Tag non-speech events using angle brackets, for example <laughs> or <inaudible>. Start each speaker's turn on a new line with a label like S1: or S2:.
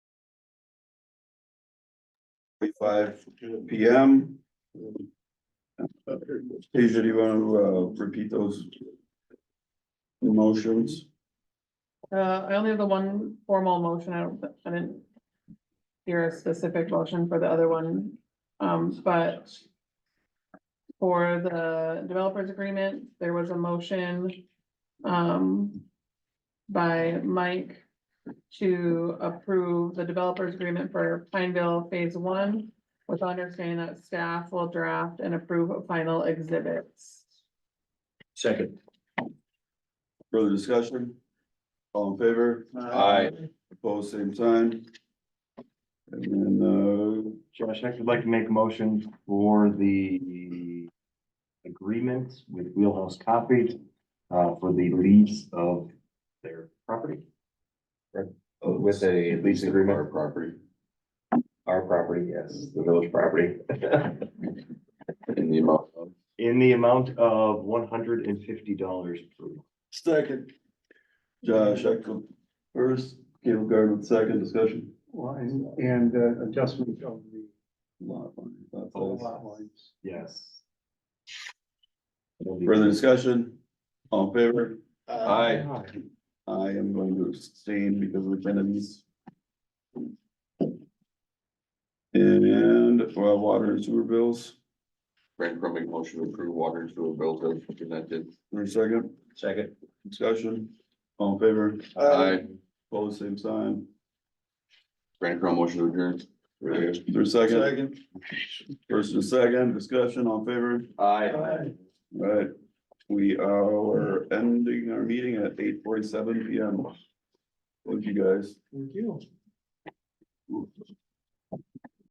S1: forty-five P M. Asia, do you want to, uh, repeat those? Motions,
S2: Uh, I only have the one formal motion, I don't, I didn't. Hear a specific motion for the other one, um, but. For the developers agreement, there was a motion, um. By Mike to approve the developers agreement for Pineville Phase One. With understanding that staff will draft and approve of final exhibits.
S3: Second.
S1: further discussion? All in favor? Opposed, same sign. And then, uh,
S4: Josh, next, I'd like to make a motion for the agreement with Wheelhouse Coffee uh, for the lease of their property.
S1: uh, oh,
S5: With a lease agreement
S4: Our
S5: or property, our property, yes, the village property. <laughs> In the amount of.
S4: In the amount of one hundred and fifty dollars per month.
S1: second. Josh, Echo first, Caleb Garden second discussion.
S6: line and uh, adjustment of the
S1: Lot line, that's all.
S6: lot lines.
S4: Yes.
S1: Further discussion? All in favor?
S5: Aye.
S1: I am going to abstain because of the enemies. And for our water and sewer bills,
S5: Brad Crowe make motion to approve water and sewer bills as presented.
S1: for a second,
S3: Second.
S1: discussion, all in favor,
S5: Aye.
S1: Opposed, same sign,
S5: Brad Crowe motion to adjourn.
S1: for a second. First and second, discussion, all in favor,
S5: Aye.
S1: right, we are ending our meeting at eight forty-seven P M. Thank you guys.
S6: Thank you.